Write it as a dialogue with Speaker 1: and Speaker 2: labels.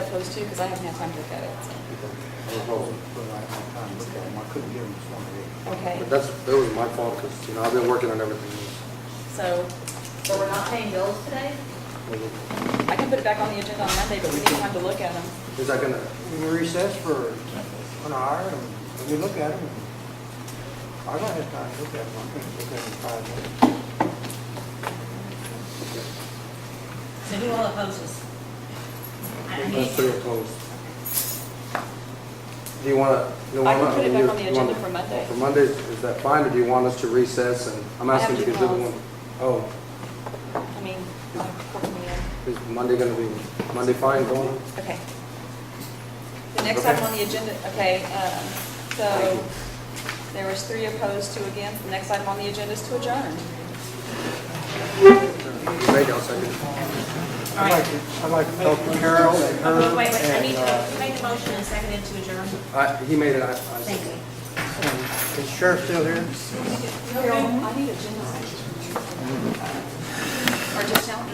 Speaker 1: opposed to, because I haven't had time to look at it. so. Okay,
Speaker 2: But that's, that was my fault, because, you know, I've been working on everything.
Speaker 1: so
Speaker 3: So we're not paying bills today?
Speaker 1: I can put it back on the agenda on Monday, but we need time to look at them.
Speaker 2: Is that gonna,
Speaker 4: We recess for an hour and we look at them. I don't have time to look at them, I can look at them in five minutes.
Speaker 3: So who all opposes? I I mean,
Speaker 2: that's three opposed. Do you wanna, you
Speaker 1: I
Speaker 2: wanna?
Speaker 1: can put it back
Speaker 2: you-
Speaker 1: on the
Speaker 2: you wanna-
Speaker 1: agenda for Monday.
Speaker 2: For Monday, is that fine, or do you want us to recess and, I'm
Speaker 1: I
Speaker 2: asking
Speaker 1: have
Speaker 2: because
Speaker 1: two
Speaker 2: everyone.
Speaker 1: calls.
Speaker 2: Oh,
Speaker 1: I mean, uh, I'll put them in.
Speaker 2: is Monday gonna be, Monday fine, going?
Speaker 1: okay. The next
Speaker 2: Okay.
Speaker 1: item on the agenda, okay, um, so there was three opposed, two against. The next item on the agenda is to adjourn.
Speaker 2: Maybe I'll second.
Speaker 3: all
Speaker 4: I'd like,
Speaker 3: right.
Speaker 4: to- I'd like to talk to Carol and
Speaker 3: Okay,
Speaker 4: her
Speaker 3: Wait, wait, I
Speaker 4: and,
Speaker 3: need to,
Speaker 4: uh,
Speaker 3: you made the motion and seconded to adjourn.
Speaker 2: I, he made it, I, I.
Speaker 3: Thank you.
Speaker 4: and is um, Sheriff still here?
Speaker 1: Carol, I need agendas